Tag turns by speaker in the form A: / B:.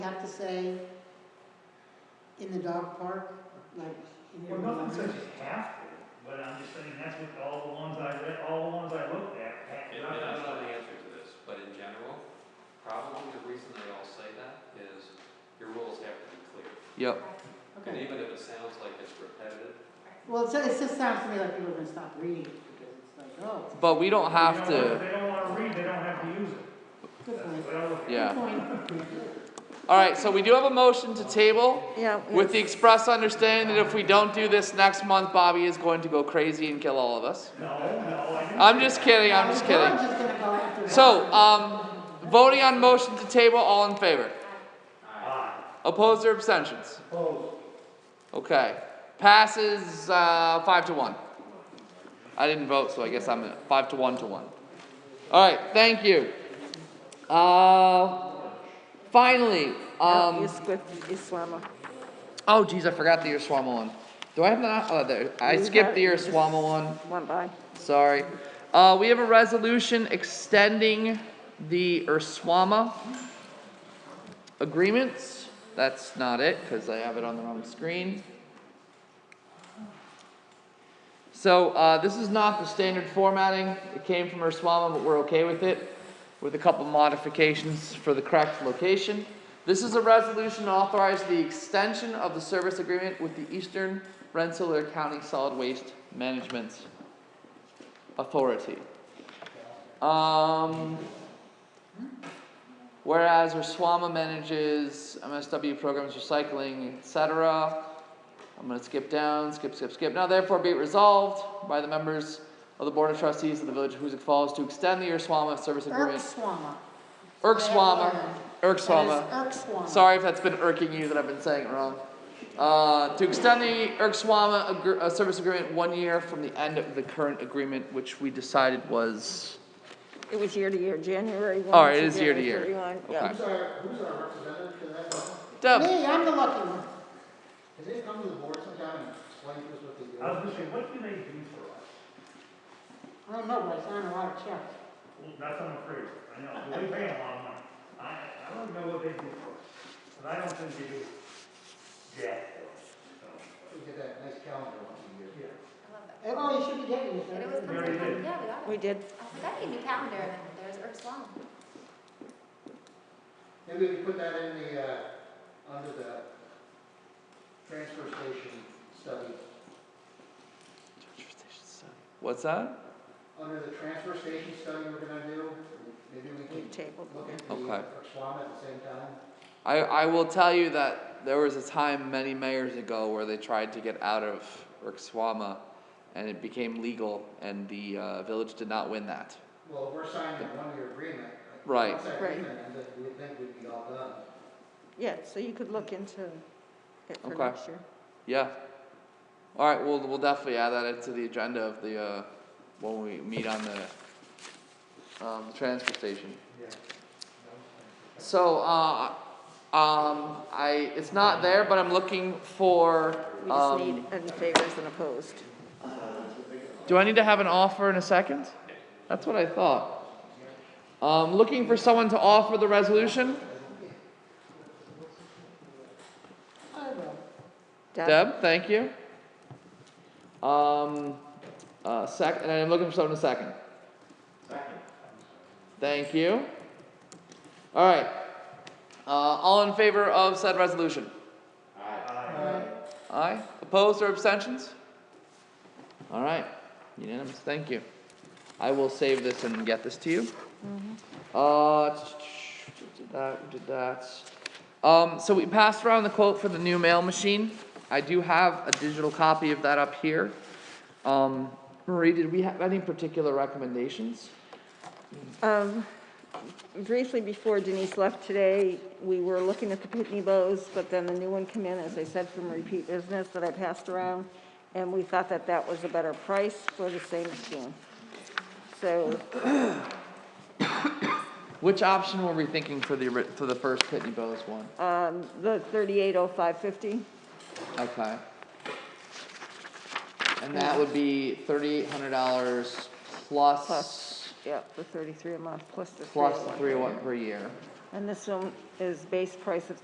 A: have to say in the dog park, like. in
B: Well,
A: your-
B: nothing says you have to, but I'm just saying that's what all the ones I read, all the ones I looked at. had.
C: And I don't know the answer to this, but in general, probably the reason they all say that is your rules have to be clear.
D: Yep,
C: And
A: Okay,
C: even if it sounds like it's repetitive,
A: well, it's, it just sounds to me like people are gonna stop reading it because it's like, oh,
D: but we don't have
B: You know, if
D: to,
B: They don't wanna read, they don't have to use it.
A: good point.
B: That's what I look at.
A: Good
D: yeah.
A: point.
D: All right, so we do have a motion to table
E: Yeah.
D: with the express understanding that if we don't do this next month, Bobby is going to go crazy and kill all of us.
B: No, no, I didn't.
D: I'm just kidding, I'm just
A: I'm
D: kidding.
A: just gonna go after.
D: So, um, voting on motion to table, all in favor?
B: Aye.
D: Opposed or abstentions? Okay, passes, uh, five to one. I didn't vote, so I guess I'm at five to one to one. Alright, thank you. Uh, finally,
E: Um,
D: um,
E: Islama.
D: oh geez, I forgot the Urswama one. Do I have that, oh, there, I
E: You
D: skipped
E: have-
D: the Urswama one,
E: One by.
D: sorry. Uh, we have a resolution extending the Urswama agreements. That's not it, cause I have it on the wrong screen. So, uh, this is not the standard formatting, it came from Urswama, but we're okay with it, with a couple modifications for the correct location. This is a resolution to authorize the extension of the service agreement with the Eastern Rensselaer County Solid Waste Management Authority. Um, whereas Urswama manages MSW programs, recycling, et cetera. I'm gonna skip down, skip, skip, skip. Now therefore be it resolved by the members of the Board of Trustees of the Village of Hoosick Falls to extend the Urswama service agreement.
A: Erkswama.
D: Erkswama, Erkswama.
A: That is Erkswama.
D: Sorry if that's been irking you that I've been saying it wrong. Uh, to extend the Erkswama agr- uh, service agreement one year from the end of the current agreement, which we decided was,
E: It was year to year, January one.
D: All right,
E: to
D: Oh, it is year to year.
E: January 31,
D: okay.
E: yeah.
F: Who's our, who's our representative to that? Has
D: Deb,
A: Me, I'm the lucky one.
F: they come to the board sometime and explain to us what they do?
B: I was gonna say, what do they do for us?
A: I don't know, but I signed a lot of checks.
B: Well, that's what I'm afraid, of. I know, but we pay them a lot of money. I, I don't know what they do for us, but I don't think they do jack for
F: We get that nice calendar once a year.
B: us, so, yeah.
A: Oh, you should be getting this.
G: And it was
A: right?
B: Very good.
G: perfect, yeah, we got it.
E: We did.
G: I was like, I need a new calendar, and then there's Eric's Lawn.
F: Maybe we can put that in the, uh, under the transfer station study,
D: what's that?
F: under the transfer station study we're gonna do, maybe we
E: We
F: can
E: tabled.
F: look
E: it.
F: at the
D: Okay.
F: Swam at the same time.
D: I, I will tell you that there was a time many mayors ago where they tried to get out of Erkswama and it became legal and the, uh, village did not win that.
F: Well, we're signing a one-year agreement.
D: Right.
F: Once that
E: Right.
F: agreement ends, we think we'd be all done.
E: Yeah, so you could look into it for
D: Okay.
E: next year.
D: Yeah. All right, we'll, we'll definitely add that into the agenda of the, uh, when we meet on the, um, the transfer station. So, uh, um, I, it's not there, but I'm looking for,
E: We just need
D: um,
E: any favors and opposed.
D: do I need to have an offer in a second? That's what I thought. Um, looking for someone to offer the resolution?
A: I will.
D: Deb, thank you. Um, uh, sec, and I'm looking for someone to second. Second. Thank you. All right. Uh, all in favor of said resolution? Aye. Aye. Opposed or abstentions? All right. Unanimous. Thank you. I will save this and get this to you. Uh, did that, did that. Um, so we passed around the quote for the new mail machine. I do have a digital copy of that up here. Um, Marie, did we have any particular recommendations?
E: Um, briefly before Denise left today, we were looking at the Pitney Bowes, but then the new one came in, as I said, from repeat business that I passed around. And we thought that that was a better price for the same machine. So
D: Which option were we thinking for the, ori- for the first Pitney Bowes one?
E: Um, the thirty-eight oh five fifty,
D: Okay. And that would be thirty-eight hundred dollars plus,
E: Plus. yeah, the oh thirty-three a month plus the
D: plus oh the
E: 301.
D: three oh one per year.
E: And this one is base price of